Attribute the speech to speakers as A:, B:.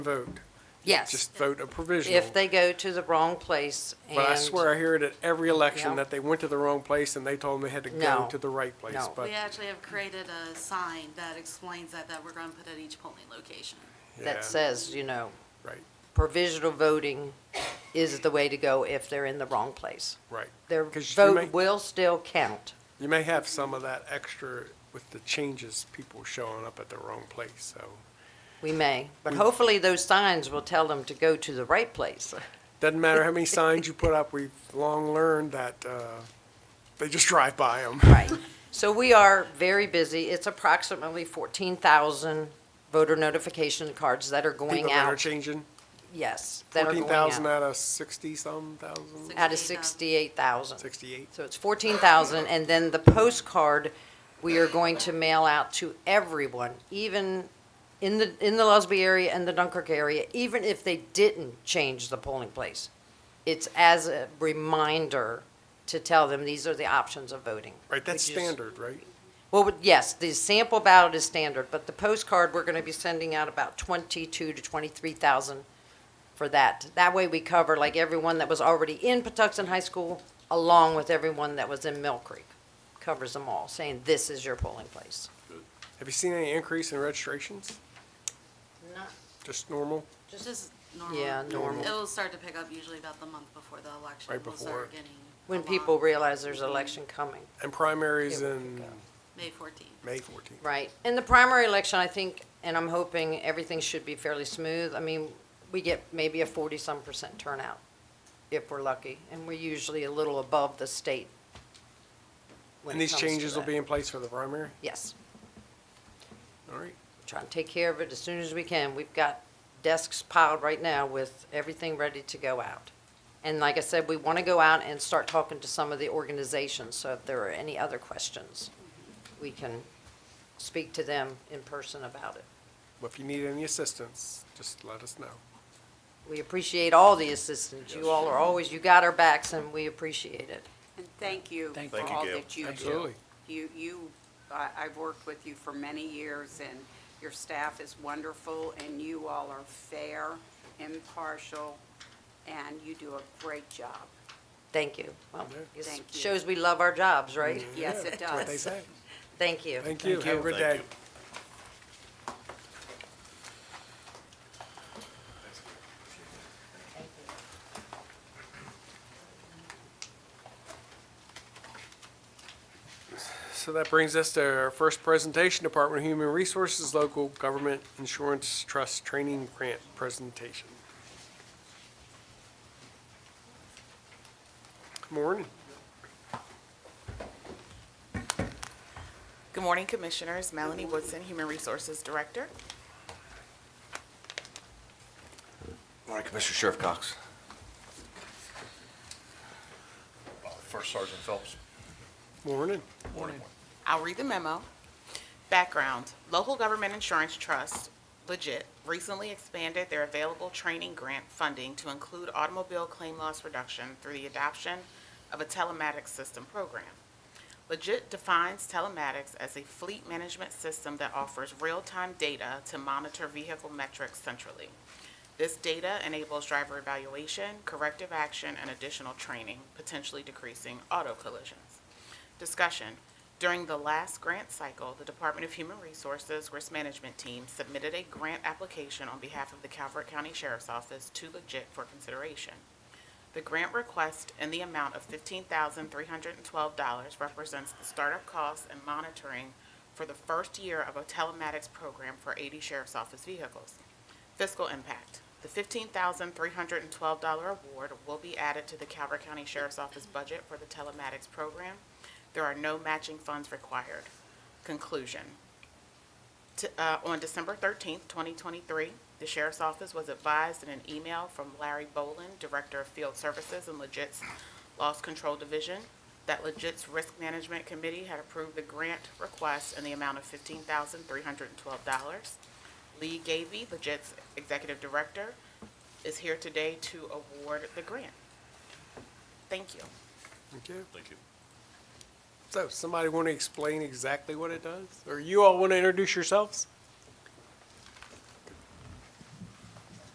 A: vote.
B: Yes,
A: Just vote a provisional.
B: if they go to the wrong place and.
A: But I swear I hear it at every election
B: Yeah.
A: that they went to the wrong place and they told them they had to go
B: No.
A: to the right place.
B: No.
A: But
C: We actually have created a sign that explains that, that we're going to put at each polling location.
A: yeah,
B: That says, you know,
A: Right,
B: provisional voting is the way to go if they're in the wrong place.
A: right.
B: Their
A: 'Cause you may-
B: vote will still count.
A: You may have some of that extra with the changes, people showing up at the wrong place, so.
B: We may, but hopefully those signs will tell them to go to the right place.
A: Doesn't matter how many signs you put up, we've long learned that, uh, they just drive by them.
B: Right. So we are very busy. It's approximately 14,000 voter notification cards that are
A: People
B: going
A: that are
B: out.
A: changing,
B: Yes, that are
A: fourteen
B: going
A: thousand
B: out.
A: out of sixty-some thousand,
B: Out of 68,000.
C: 68,000.
A: sixty-eight.
B: So it's fourteen thousand, and then the postcard, we are going to mail out to everyone, even in the, in the Lusby area and the Dunkirk area, even if they didn't change the polling place. It's as a reminder to tell them, these are the options of voting.
A: Right, that's
B: which is-
A: standard, right?
B: Well, with- yes, the sample ballot is standard, but the postcard, we're gonna be sending out about twenty-two to twenty-three thousand for that. That way we cover like everyone that was already in Patuxent High School, along with everyone that was in Mill Creek. Covers them all, saying this is your polling place.
A: Have you seen any increase in registrations?
B: Not
A: Just normal?
C: Just as normal.
B: Yeah, normal.
C: It'll start to pick up usually about the month before the election.
A: Right
C: We'll
A: before.
C: start getting.
B: When
C: a lot.
B: people realize there's an election coming,
A: And primaries
B: Yeah, we
A: in
B: could go.
C: May fourteenth.
A: May 14th.
B: right? In the primary election, I think, and I'm hoping everything should be fairly smooth. I mean, we get maybe a forty-some percent turnout, if we're lucky, and we're usually a little above the state. when
A: And
B: it
A: these
B: comes to
A: changes will
B: that.
A: be in place for the primary?
B: Yes.
A: All right.
B: trying to take care of it as soon as we can. We've got desks piled right now with everything ready to go out. And like I said, we want to go out and start talking to some of the organizations, so if there are any other questions, we can speak to them in person about it.
A: Well, if you need any assistance, just let us know.
B: We appreciate all the assistance. You all are always, you got our backs, and we appreciate it.
D: And thank you
E: Thank
D: for
E: you.
D: all
F: Gail.
D: that you do.
A: Absolutely.
D: You, you, I, I've worked with you for many years, and your staff is wonderful, and you all are fair, impartial, and you do a great job.
B: Thank you. Well, it
D: Thank you. Mm-hmm.
B: shows we love our jobs, right?
D: Yes, it
A: That's what they
D: does.
A: say.
B: Thank you.
A: Thank you. Have a good
F: Thank
A: day.
F: you.
A: So that brings us to our first presentation, Department of Human Resources Local Government Insurance Trust Training Grant Presentation. Good Morning.
G: Good morning, Commissioners. Melanie Woodson, Human Resources Director.
F: Morning, Commissioner Sheriff Cox.
H: First Sergeant Phelps.
A: Morning.
H: Morning.
G: I'll read the memo. Background, Local Government Insurance Trust, legit, recently expanded their available training grant funding to include automobile claim loss reduction through the adoption of a telematics system program. Legit defines telematics as a fleet management system that offers real-time data to monitor vehicle metrics centrally. This data enables driver evaluation, corrective action, and additional training, potentially decreasing auto collisions. Discussion. During the last grant cycle, the Department of Human Resources Risk Management Team submitted a grant application on behalf of the Calvert County Sheriff's Office to Legit for consideration. The grant request in the amount of $15,312 represents the startup costs and monitoring for the first year of a telematics program for 80 sheriff's office vehicles. Fiscal impact. The $15,312 award will be added to the Calvert County Sheriff's Office budget for the telematics program. There are no matching funds required. Conclusion. T- uh, On December 13th, 2023, the Sheriff's Office was advised in an email from Larry Bolin, Director of Field Services and Legit's Loss Control Division, that Legit's Risk Management Committee had approved the grant request in the amount of $15,312. Lee Gavy, Legit's Executive Director, is here today to award the grant. Thank you.
A: Thank you.
F: Thank you.
A: So, somebody want to explain exactly what it does? Or you all want to introduce yourselves?